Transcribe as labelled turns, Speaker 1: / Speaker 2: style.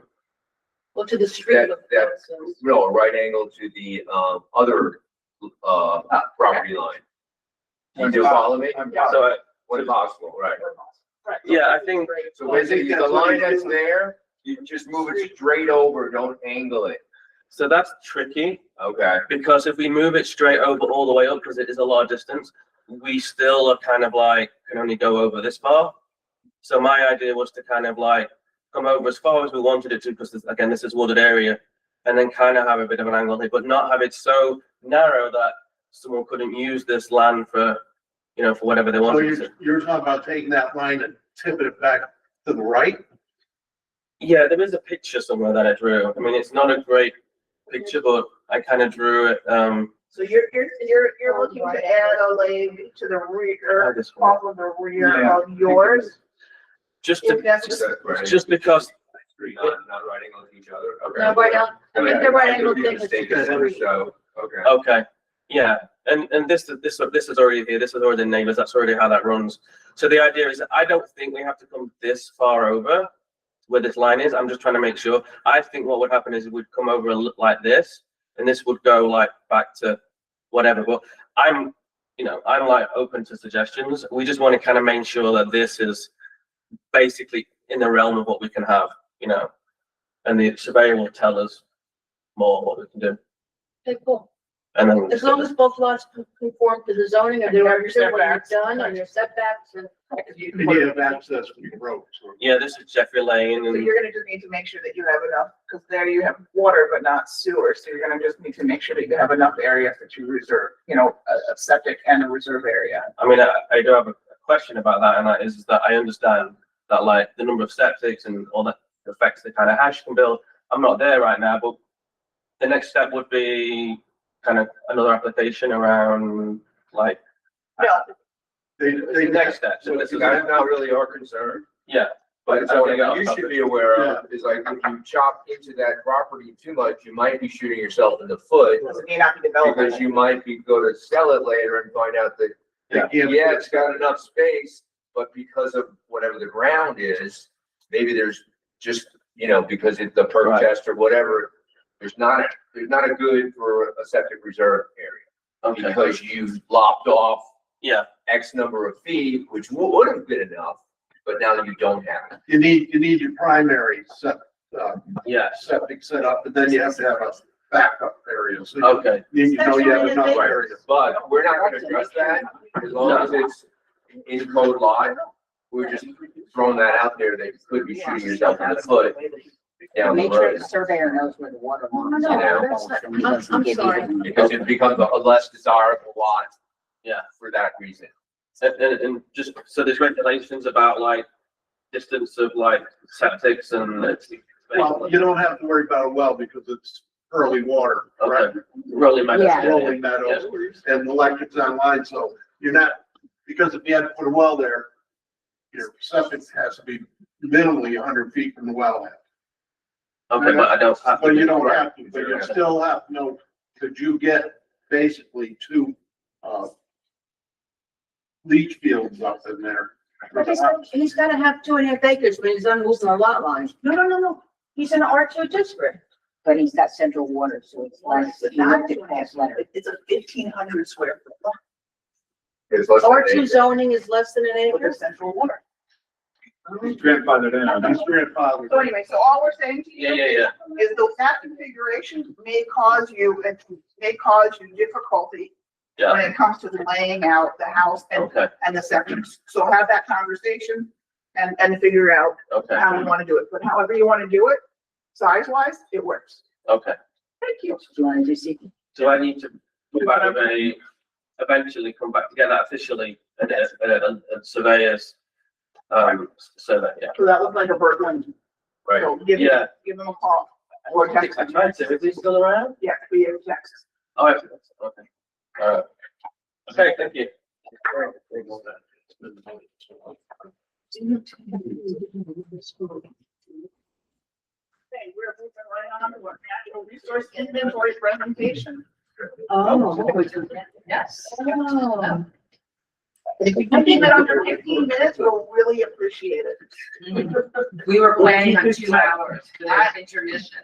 Speaker 1: Well, to the street.
Speaker 2: That- that- No, a right angle to the, um, other, uh, property line. Do you follow me?
Speaker 3: So, I-
Speaker 2: When possible, right.
Speaker 3: yeah, I think,
Speaker 2: So basically, the line that's there, you just move it straight over, don't angle it.
Speaker 3: so that's tricky,
Speaker 2: Okay,
Speaker 3: because if we move it straight over all the way up, because it is a large distance, we still are kind of like, can only go over this far. So my idea was to kind of like come over as far as we wanted it to, because this- again, this is wooded area, and then kind of have a bit of an angle here, but not have it so narrow that someone couldn't use this land for, you know, for whatever they
Speaker 4: So
Speaker 3: wanted
Speaker 4: you're,
Speaker 3: to.
Speaker 4: you're talking about taking that line and tipping it back to the right?
Speaker 3: Yeah, there is a picture somewhere that I drew. I mean, it's not a great picture, but I kind of drew it, um,
Speaker 1: So you're, you're, you're, you're looking to add a lane to the rear,
Speaker 3: this one.
Speaker 1: off of the rear of yours.
Speaker 3: just
Speaker 1: If
Speaker 3: to,
Speaker 1: that's-
Speaker 2: just that right. angle,
Speaker 3: just because,
Speaker 2: Not, not right angle to each other, okay.
Speaker 1: No, right on, I mean, the right
Speaker 2: I
Speaker 1: angle
Speaker 2: could be
Speaker 1: thing is to
Speaker 2: mistaken,
Speaker 1: the street.
Speaker 2: So, okay,
Speaker 3: okay, yeah, and, and this, this, this is already here, this is already neighbors, that's already how that runs. So the idea is, that I don't think we have to come this far over where this line is, I'm just trying to make sure. I think what would happen is it would come over a li- like this, and this would go like back to whatever, but I'm, you know, I'm like open to suggestions. We just want to kind of make sure that this is basically in the realm of what we can have, you know? And the surveyor will tell us more what we can do.
Speaker 1: Okay, cool.
Speaker 3: And then.
Speaker 1: As long as both lots con- conform to the zoning and they
Speaker 5: And have your
Speaker 1: understand what you've
Speaker 5: setbacks.
Speaker 1: done and your setbacks and.
Speaker 4: You need to have access from your road. so-
Speaker 3: Yeah, this is Jeffrey Lane
Speaker 5: So
Speaker 3: and
Speaker 5: you're gonna just need to make sure that you have enough, because there you have water but not sewer, so you're gonna just need to make sure that you have enough area that you reserve, you know, a, a septic and a reserve area.
Speaker 3: I mean, I, I do have a question about that, and that is that I understand that like the number of septics and all the effects that kind of hash can build. I'm not there right now, but the next step would be kind of another application around like.
Speaker 5: No.
Speaker 4: They,
Speaker 3: The
Speaker 4: they,
Speaker 3: next step, so
Speaker 2: so
Speaker 3: this
Speaker 2: that's
Speaker 3: is,
Speaker 2: not really our concern.
Speaker 3: yeah,
Speaker 2: But it's
Speaker 3: I
Speaker 2: something
Speaker 3: wanna get off
Speaker 2: you
Speaker 3: topic.
Speaker 2: should be aware of is like if you chop into that property too much, you might be shooting yourself in the foot.
Speaker 5: Because it may not be developed.
Speaker 2: Because you might be go to sell it later and find out that,
Speaker 4: they can't.
Speaker 2: yeah, it's got enough space, but because of whatever the ground is, maybe there's just, you know, because it's the perk
Speaker 3: Right.
Speaker 2: test or whatever, there's not, there's not a good for a septic reserve area.
Speaker 3: okay,
Speaker 2: Because you've lopped off
Speaker 3: yeah,
Speaker 2: X number of feet, which wo- would have been enough, but now you don't have it.
Speaker 4: You need, you need your primary set, uh,
Speaker 3: yeah,
Speaker 4: septic set up, and then you have to have a backup area, so you
Speaker 3: okay,
Speaker 4: need to know you have enough
Speaker 2: Right,
Speaker 4: area.
Speaker 2: but we're not gonna address that as long as it's in code live. We're just throwing that out there, that you could be shooting yourself in the foot down the
Speaker 6: Make sure
Speaker 2: road.
Speaker 6: the surveyor knows where the water lines
Speaker 2: no,
Speaker 6: are.
Speaker 1: that's not- I'm- I'm sorry.
Speaker 2: Because it becomes a less desirable lot.
Speaker 3: Yeah.
Speaker 2: For that reason.
Speaker 3: and, and, and just, so there's regulations about like distance of like septics and. it's-
Speaker 4: Well, you don't have to worry about a well because it's early water, right?
Speaker 3: Okay, rolling my.
Speaker 6: Yeah.
Speaker 4: Rolling meadows and the electric's online, so you're not, because if you had to put a well there, your septic has to be minimally hundred feet from the wellhead.
Speaker 3: Okay, but I don't have. to
Speaker 4: But you don't
Speaker 3: do-
Speaker 4: have to, but you still have, to know. could you get basically two, uh, leach fields up in there?
Speaker 1: But he's, he's gotta have two and a half acres when he's done losing the lot lines. No, no, no, no. He's in an R two district.
Speaker 6: But he's got central water, so it's like, if you looked at past letter.
Speaker 5: It's a fifteen hundred square foot lot
Speaker 2: It's less than
Speaker 1: R two
Speaker 2: eight.
Speaker 1: zoning is less than an
Speaker 5: with a
Speaker 1: acre.
Speaker 5: central water.
Speaker 4: He's grandfathered in. He's
Speaker 5: So
Speaker 4: grandfathered.
Speaker 5: anyway, so all we're saying to you.
Speaker 3: Yeah, yeah, yeah.
Speaker 5: Is that that configuration may cause you, may cause you difficulty
Speaker 3: Yeah.
Speaker 5: when it comes to laying out the house and
Speaker 3: Okay,
Speaker 5: and the septic. So have that conversation and, and figure out
Speaker 3: okay,
Speaker 5: how we want to do it. But however you want to do it, size wise, it works.
Speaker 3: okay.
Speaker 5: Thank
Speaker 6: Do
Speaker 5: you.
Speaker 6: you want to do secret?
Speaker 3: Do I need to come back with a, eventually come back to get that officially and, and, and- and surveyors? Um, survey, yeah.
Speaker 5: So that looked like a bird one.
Speaker 2: Right.
Speaker 5: So give
Speaker 3: Yeah.
Speaker 5: them, give them a call. Or
Speaker 3: I think
Speaker 5: text
Speaker 3: I
Speaker 5: them.
Speaker 3: tried to, is he still around?
Speaker 5: Yeah, we have text.
Speaker 3: Oh, okay, okay. Alright. Okay, thank you.
Speaker 5: Okay, we're moving right on to our natural resource inventory presentation. Yes.
Speaker 1: Oh.
Speaker 5: I think that under fifteen minutes, we'll really appreciate it.
Speaker 7: We were planning on two hours, but there's intermission.